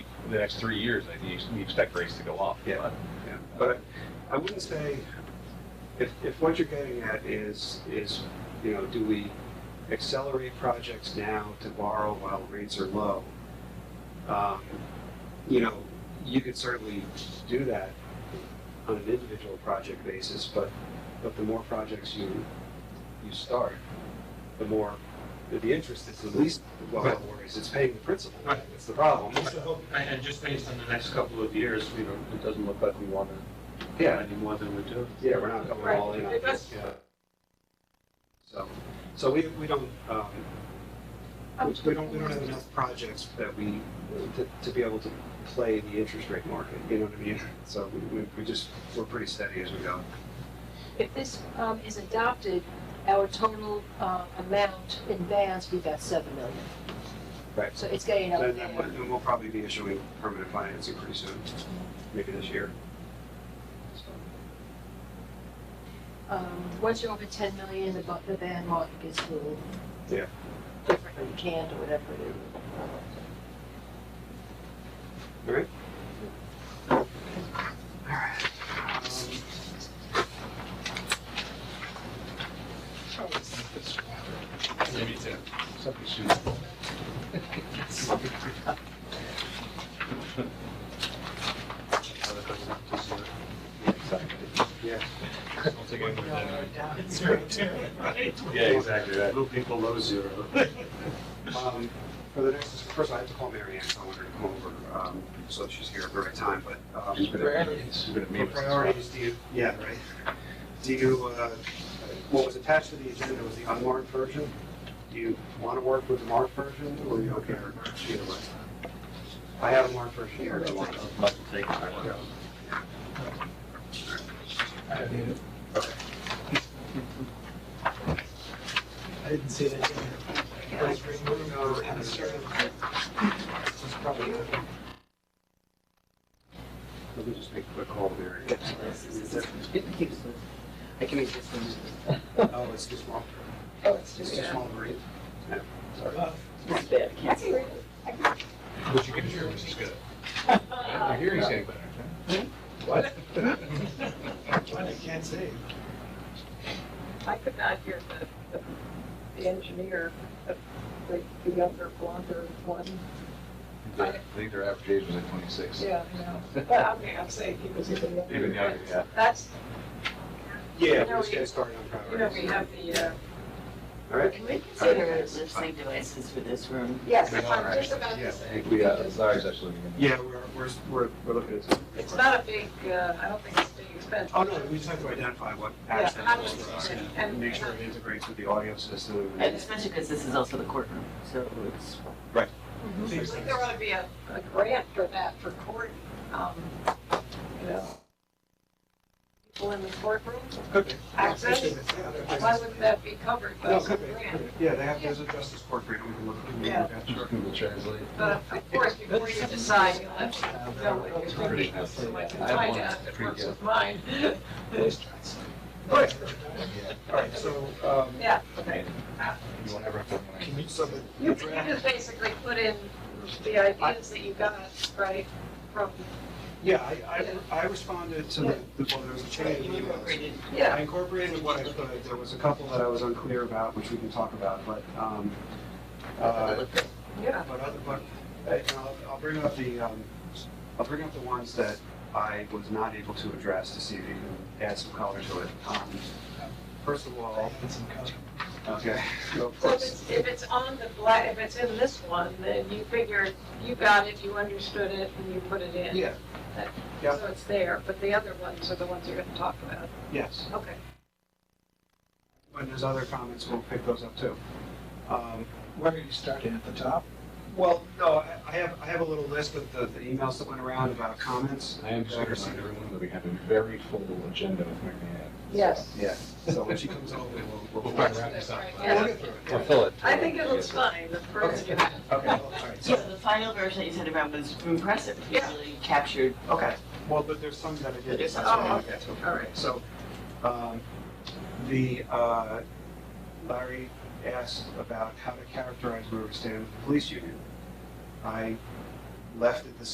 the next three years, I think you expect rates to go up. Yeah. Yeah, but I wouldn't say, if, if what you're getting at is, is, you know, do we accelerate projects now to borrow while rates are low? Um, You know, you could certainly do that on an individual project basis, but, but the more projects you, you start, the more, the interest is the least, well, Right. worries, it's paying the principal, Right. that's the problem. So, And and just based on the next couple of years, we don't, it doesn't look like we want to Yeah, any more than we do. Yeah, we're not going all in on Right. this, yeah. So, so we, we don't, um, we don't, we don't have enough projects that we, to, to be able to play the interest rate market, you know what I mean? So we, we, we just, we're pretty steady as we go. If this um, is adopted, our total uh, amount in bonds would be about seven million. Right. So it's getting up And then we'll- there. and we'll probably be issuing permanent financing pretty soon, maybe this year. So, Um, Once you're over ten million, the bu- the band market gets a little Yeah. different, or canned, or whatever it is. All right? Um, Maybe it's a- something soon. Exactly. Yeah. Don't take any more than I- Yeah, exactly, right. Little people low zero. Um, For the next, first I have to call Mary Ann, so I want her to come over, um, so she's here at the right time, but. um, Priorities. You're gonna For meet with us. priorities, do you, yeah, right. Do you, uh, what was attached to the agenda was the unmarked version? Do you want to work with the marked version, or are you okay with either way? I have a marked version here. if you want. Michael, take it. I didn't see that. Let me just make a quick call to Mary. I can exist. Oh, it's too small. Oh, it's It's just, too small to read. Yeah, sorry. Uh, it's bad. I can't see. What you can hear, which is good. Your hearing's getting better. What? I can't say. I could not hear the, the engineer, the, the younger blonder one. I think their average age was like twenty-six. Yeah, I know. But I mean, I'm saying he was even younger. Even younger, yeah. That's, Yeah, You know, we're just we- getting started on you know, we priorities. have the, uh, All right? Can we consider listening devices for this room? yes, We are, I'm just about yeah. to I say. think we, uh, Larry's actually. looking into it. Yeah, we're, we're, we're, we're looking at. some- It's not a big, uh, I don't think it's a big expense. Oh, no, we just have to identify what Yeah, access how points does- are, and and- make sure it integrates with the audio system. And especially because this is also the courtroom, so it's, Seems like there ought to be a, a grant for that, for court, um, you know, people in the courtroom, Could be. access. why wouldn't that be covered by No, some could be. grant? Yeah, they have, there's a justice court grant, we can look. we can look at it. Sure, Google Translate. But of course, before you decide, you'll have to know what you're Pretty thinking, nice. so I can I have find one out if that's it pretty works good. with mine. Right. All right, so, um, Yeah, okay. You won't ever have to run out. You, you just basically put in the ideas that you got, right, from, yeah, I, I, I responded to the, the- well, there was a change in emails. I yeah, incorporated what I could, there was a couple that I was unclear about, which we can talk about, but, um, uh, yeah. But other, but, uh, you know, I'll, I'll bring up the, um, I'll bring up the ones that I was not able to address to see if you can add some color to it. Um, First of all, okay, so of So if course, it's, if it's on the black, if it's in this one, then you figure you got it, you understood it, and you put it in. yeah, yeah. So it's there, but the other ones are the ones you're gonna talk about. yes. Okay. When there's other comments, we'll pick those up too. Um, Where are you starting at the top? Well, no, I I have, I have a little list of the, the emails that went around about comments. I am just going to remind everyone that we have a very full agenda with Mary Ann. Yes. Yeah, so when she comes over, we'll, we'll. We'll wrap We'll this up. Yeah. get through it. Or fill it. I think it looks fine, the first you have. Okay, all right, so so, the final version that you sent around was impressive. It Yeah. really captured okay, well, but there's some that I did. There's some- Oh, oh, okay, all right, so, um, the, uh, Larry asked about how to characterize where we stand with the police union. I left it the